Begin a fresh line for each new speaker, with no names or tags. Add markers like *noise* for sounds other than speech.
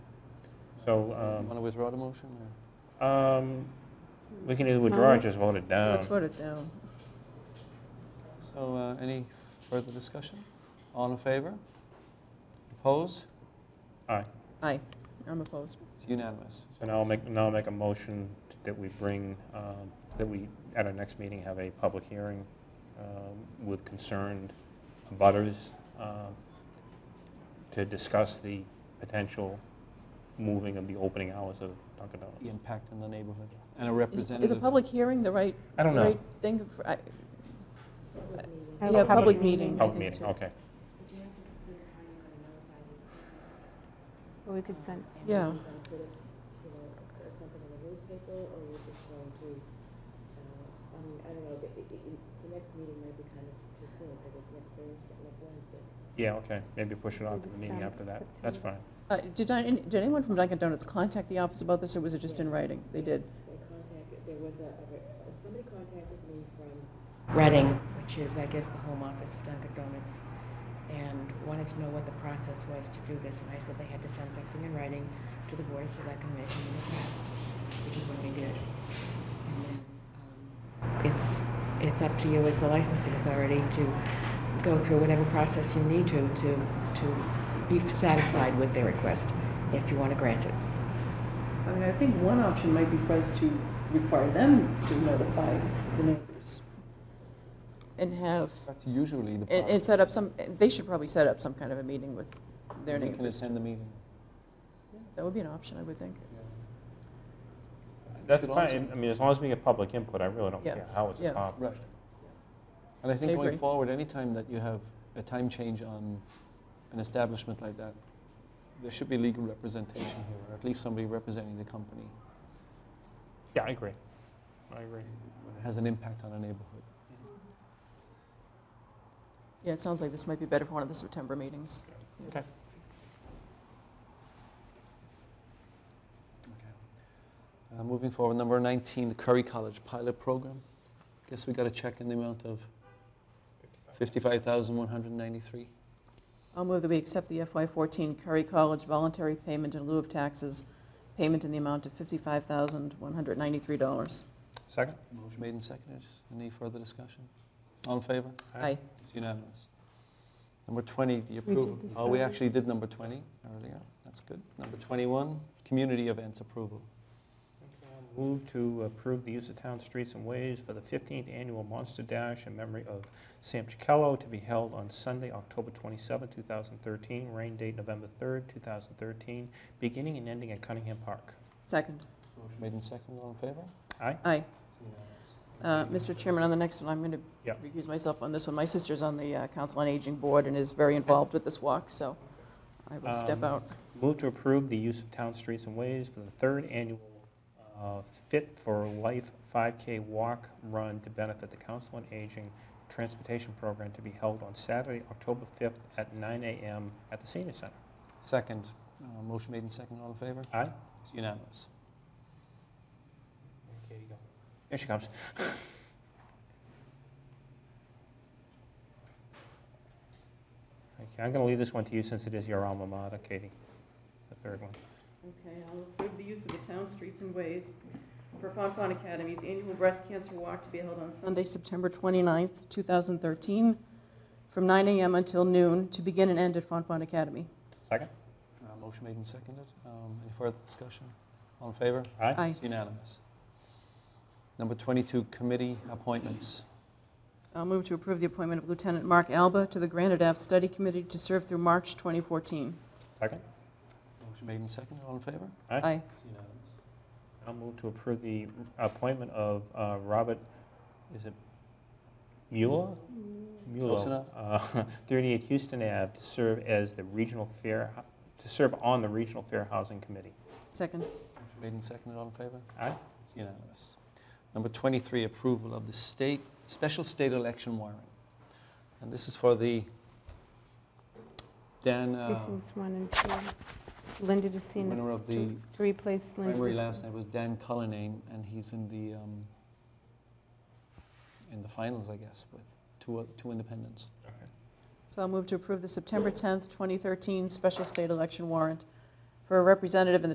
So
You Want
um,
to withdraw the motion? or-
um, we can either withdraw or just vote it down.
Uh-huh. Let's vote it down.
So uh, any further discussion? All in favor? Opposed?
Aye.
Aye, I'm opposed.
It's unanimous.
So now I'll make, now I'll make a motion that we bring, um, that we, at our next meeting, have a public hearing um, with concerned abutters um, to discuss the potential moving of the opening hours of Dunkin'
The
Donuts.
impact in the neighborhood and a
Is-
representative.
Is a public hearing the right,
I don't know.
right thing? for- I-
Have a
Yeah, public meeting. I
Public
think
meeting,
too.
okay.
But you have to consider how you're going to notify these people.
Or we could send,
And
Yeah.
Are you going to put it, you know, something in the newspaper, or you are just going to, uh, I mean, I don't know, but it, it, it- the next meeting might be kind of too soon, because it's next Thursday, next Wednesday.
Yeah, okay. Maybe push it on to the meeting
December,
after that. That's fine.
September.
uh, Did I- any- did anyone from Dunkin' Donuts contact the office about this, or was it just in
Yes,
writing? They did.
yes, They contacted, there was a, a re- uh, somebody contacted me from Reading, which is, I guess, the home office of Dunkin' Donuts, and wanted to know what the process was to do this, and I said they had to send something in writing to the Board of Selectmen making it pass, which is what we did. And then, um, It's, it's up to you as the licensing authority to go through whatever process you need to, to, to be satisfied with their request, if you want to grant it.
I mean, I think one option might be for us to require them to notify the neighbors. And have,
That's usually the.
and and
process.
set up some, they should probably set up some kind of a meeting with their
We can
neighbors.
attend the meeting.
That would be an option, I would think.
That's
Should also-
fine. I mean, as long as we get public input, I really don't
Yeah,
care how it's
yeah.
accomplished.
And I think
I
going
agree.
forward, anytime that you have a time change on an establishment like that, there should be legal representation here, or at least somebody representing the company
Yeah, I agree. I agree.
when it has an impact on a neighborhood.
Yeah, it sounds like this might be better for one of the September meetings.
Uh, Moving forward, number 19, the Curry College pilot program. Guess we got a check in the amount of 55193
I'll move that we accept the FY14 Curry College voluntary payment in lieu of taxes, payment in the amount of $55,193.
Second?
Motion made and seconded. Any further discussion? All in favor?
Aye.
It's unanimous. Number 20, the
did
approval.
this
Oh, we
already.
actually did number 20 earlier. That's good. Number 21, community events approval.
Move to approve the use of town streets and ways for the 15th Annual Monster Dash in memory of Sam Chicallo to be held on Sunday, October 27, 2013, rain date November 3rd, 2013, beginning and ending at Cunningham Park.
Second.
Motion made and seconded. All in favor?
Aye.
It's unanimous.
Uh, Mr. Chairman, on the next one, I'm going to
Yeah.
recuse myself on this one. My sister's on the uh, Council on Aging Board and is very involved with this walk, so I will step
Um,
out.
Move to approve the use of town streets and ways for the third annual uh, Fit for Life 5K Walk Run to benefit the Council on Aging Transportation Program to be held on Saturday, October 5th at 9 a.m. at the Senior Center.
Second, uh, motion made and seconded. All in favor?
Aye?
It's unanimous.
Here you go. Here she comes. Okay, I'm going to leave this one to you since it is your alma mater, Katie, the third one.
Okay, I'll approve the use of the town streets and ways for Fontbon Academy's annual breast cancer walk to be held on Sunday, September 29th, 2013, from 9 a.m. until noon, to begin and end at Fontbon Academy.
Second?
Uh, Motion made and seconded. Um, Any further discussion? All in favor?
Aye?
Aye.
It's unanimous. Number 22, committee appointments.
I'll move to approve the appointment of Lieutenant Mark Alba to the Granite Ave Study Committee to serve through March 2014.
Second?
Motion made and seconded. All in favor?
Aye.
Aye.
It's unanimous.
I'll move to approve the appointment of uh, Robert, is it Mueller? Mueller.
Close enough.
uh, *laughs* 38 Houston Ave to serve as the regional fair, to serve on the Regional Fair Housing Committee.
Second.
Motion made and seconded. All in favor?
Aye?
It's unanimous. Number 23, approval of the state, special state election warrant. And this is for the, Dan, uh,
precincts one and two. Linda DeCina,
winner of the
to to replace Linda.
primary
DeCina.
last night was Dan Cullinane, and he's in the, um, in the finals, I guess, with two, o- two independents.
So I'll move to approve the September 10th, 2013 special state election warrant for a representative in the